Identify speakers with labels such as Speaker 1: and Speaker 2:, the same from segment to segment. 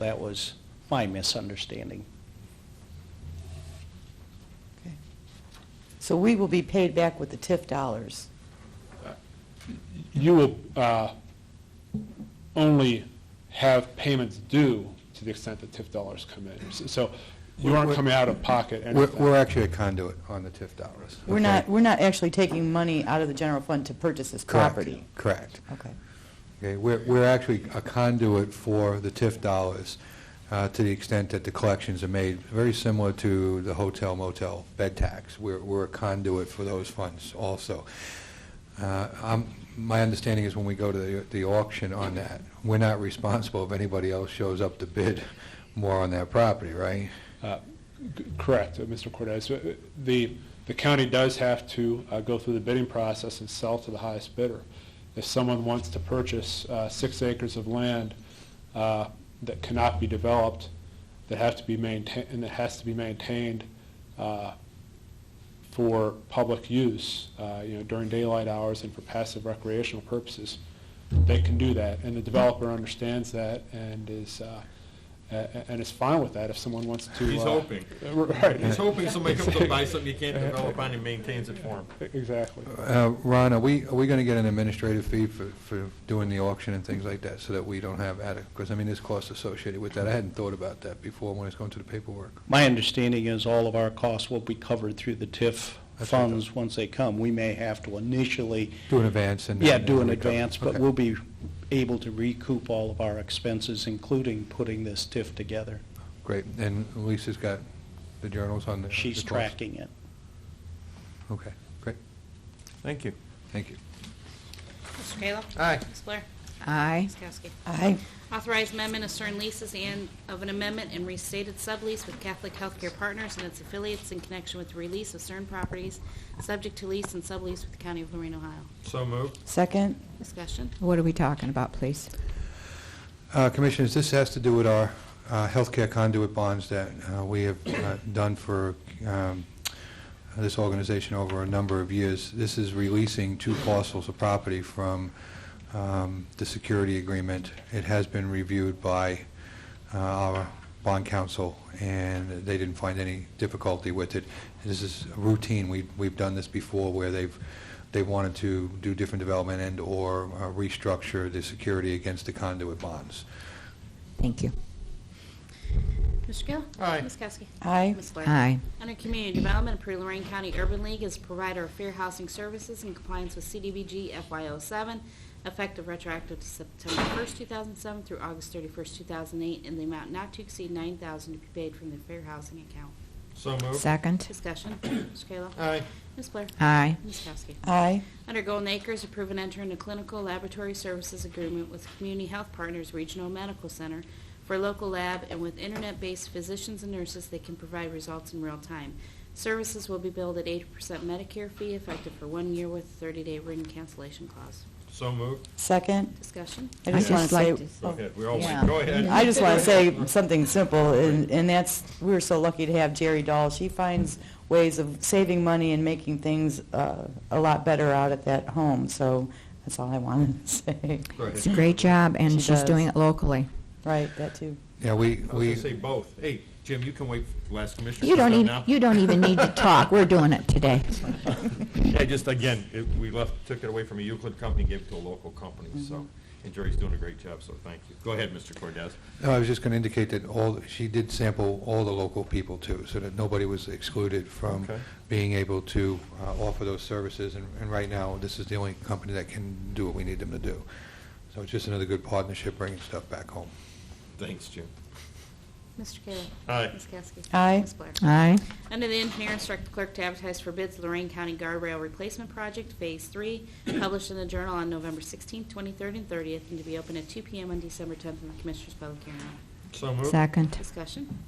Speaker 1: That was my misunderstanding.
Speaker 2: So we will be paid back with the TIF dollars.
Speaker 3: you will uh, only have payments due to the extent that TIF dollars come in. S- So you aren't
Speaker 4: We're-
Speaker 3: coming out of pocket
Speaker 4: We're,
Speaker 3: anything.
Speaker 4: we're actually a conduit on the TIF dollars.
Speaker 2: We're
Speaker 4: okay?
Speaker 2: not, we're not actually taking money out of the general fund to purchase this
Speaker 4: Correct,
Speaker 2: property.
Speaker 4: Correct.
Speaker 2: Okay.
Speaker 4: Okay, we're, we're actually a conduit for the TIF dollars uh, to the extent that the collections are made, very similar to the hotel motel bed tax. We're, we're a conduit for those funds also. Uh, I'm- My understanding is when we go to the- the auction on that, we're not responsible if anybody else shows up to bid more on that property, right?
Speaker 3: C- Correct, uh, Mr. Cortez. Uh, The, the county does have to uh, go through the bidding process and sell to the highest bidder. If someone wants to purchase uh, six acres of land uh, that cannot be developed, that have to be maintained, and that has to be maintained uh, for public use, uh, you know, during daylight hours and for passive recreational purposes, they can do that. And the developer understands that and is, uh, a- a- and is fine with that if someone wants to.
Speaker 5: He's
Speaker 3: uh,
Speaker 5: hoping.
Speaker 3: Right.
Speaker 5: He's hoping somebody comes up and buys something he can't develop on and maintains it for him.
Speaker 3: Exactly.
Speaker 4: Uh, Ron, are we, are we going to get an administrative fee for, for doing the auction and things like that, so that we don't have added, because, I mean, there's costs associated with that. I hadn't thought about that before when I was going through the paperwork.
Speaker 1: My understanding is all of our costs will be covered through the TIF
Speaker 4: That's what I thought.
Speaker 1: funds once they come. We may have to initially,
Speaker 4: Do an advance and...
Speaker 1: yeah,
Speaker 4: and
Speaker 1: do an
Speaker 4: recover.
Speaker 1: advance, but
Speaker 4: Okay.
Speaker 1: we'll be able to recoup all of our expenses, including putting this TIF together.
Speaker 4: Great, and Lisa's got the journals on the... the
Speaker 1: She's
Speaker 4: costs?
Speaker 1: tracking it.
Speaker 4: Okay, great,
Speaker 5: Thank you.
Speaker 4: thank you.
Speaker 6: Mr. Kayla?
Speaker 5: Aye.
Speaker 6: Ms. Blair?
Speaker 2: Aye.
Speaker 6: Ms. Kowski?
Speaker 2: Aye.
Speaker 6: Authorize amendment of certain leases and of an amendment and restated sublease with Catholic Healthcare Partners and its affiliates in connection with the release of certain properties subject to lease and sublease with the County of Lorraine, Ohio.
Speaker 5: So moved.
Speaker 2: Second?
Speaker 6: Discussion.
Speaker 7: What are we talking about, please?
Speaker 4: Uh, Commissioners, this has to do with our uh, healthcare conduit bonds that uh, we have uh, done for um, this organization over a number of years. This is releasing two parcels of property from um, the security agreement. It has been reviewed by uh, our bond counsel, and they didn't find any difficulty with it. This is routine. We- We've done this before where they've they wanted to do different development and/or restructure the security against the conduit bonds.
Speaker 7: Thank you.
Speaker 6: Mr. Kayla?
Speaker 5: Aye.
Speaker 6: Ms. Kowski?
Speaker 2: Aye.
Speaker 6: Ms. Blair?
Speaker 7: Aye.
Speaker 6: Under Community Development, approve Lorraine County Urban League as provider of fair housing services in compliance with CDBG FY07, effective retroactive to September 1st, 2007 through August 31st, 2008, in the amount not to exceed 9000 to be paid from the fair housing account.
Speaker 5: So moved.
Speaker 7: Second?
Speaker 6: Discussion. Mr. Kayla.
Speaker 5: Aye.
Speaker 6: Ms. Blair.
Speaker 7: Aye.
Speaker 6: Ms. Kowski.
Speaker 2: Aye.
Speaker 6: Under Golden Acres, approve and enter into clinical laboratory services agreement with Community Health Partners Regional Medical Center for local lab and with internet-based physicians and nurses that can provide results in real time. Services will be billed at 80% Medicare fee effective for one year with a 30-day written cancellation clause.
Speaker 5: So moved.
Speaker 2: Second?
Speaker 6: Discussion.
Speaker 2: I
Speaker 7: I
Speaker 2: just want to
Speaker 7: just
Speaker 2: say...
Speaker 7: like to-
Speaker 5: Go
Speaker 2: oh.
Speaker 5: ahead. We all,
Speaker 7: Yeah.
Speaker 5: go ahead.
Speaker 2: I just want to say something simple, and and that's, we we're so lucky to have Jerry Dahl. She finds ways of saving money and making things uh, a lot better out at that home, so that's all I wanted to say.
Speaker 5: Go ahead.
Speaker 7: It's a great job,
Speaker 2: She
Speaker 7: and she's
Speaker 2: does.
Speaker 7: doing it locally.
Speaker 2: Right, that too.
Speaker 4: Yeah, we,
Speaker 5: I was
Speaker 4: we,
Speaker 5: gonna say both. Hey, Jim, you can wait for the last commissioner.
Speaker 7: You
Speaker 5: to
Speaker 7: don't
Speaker 5: come
Speaker 7: even,
Speaker 5: now.
Speaker 7: you don't even need to talk. We're doing it today.
Speaker 5: Yeah, just again, it- we left, took it away from a Euclid company, gave it to a local company,
Speaker 7: Mm-hmm.
Speaker 5: so, and Jerry's doing a great job, so thank you. Go ahead, Mr. Cordez.
Speaker 4: no, I was just going to indicate that all, she did sample all the local people too, so that nobody was excluded from
Speaker 5: Okay.
Speaker 4: being able to uh, offer those services, and, and right now, this is the only company that can do what we need them to do. So it's just another good partnership, bringing stuff back home.
Speaker 5: Thanks, Jim.
Speaker 6: Mr. Kayla.
Speaker 5: Aye.
Speaker 6: Ms. Kowski.
Speaker 2: Aye.
Speaker 6: Ms. Blair.
Speaker 7: Aye.
Speaker 6: Under the engineer, instruct the clerk to advertise for bids Lorraine County Guardrail Replacement Project Phase 3, published in the Journal on November 16th, 23rd, and 30th, and to be open at 2 PM on December 10th in the Commissioners' Public Hearing. Room.
Speaker 5: So moved.
Speaker 7: Second?
Speaker 6: Discussion.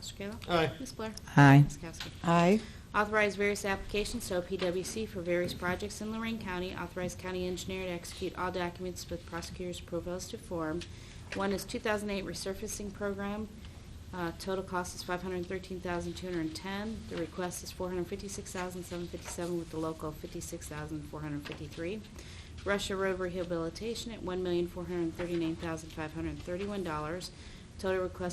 Speaker 6: Mr. Kayla?
Speaker 5: Aye.
Speaker 6: Ms. Blair?
Speaker 7: Aye.
Speaker 6: Ms. Kowski?
Speaker 2: Aye.
Speaker 6: Authorize various applications to OPWC for various projects in Lorraine County. Authorize county engineer to execute all documents with prosecutor's proposed to form. One is 2008 resurfacing program. Uh, Total cost is 513210 The request is 456757 with the local 56453 Russia Road rehabilitation at $1,439,531. Total request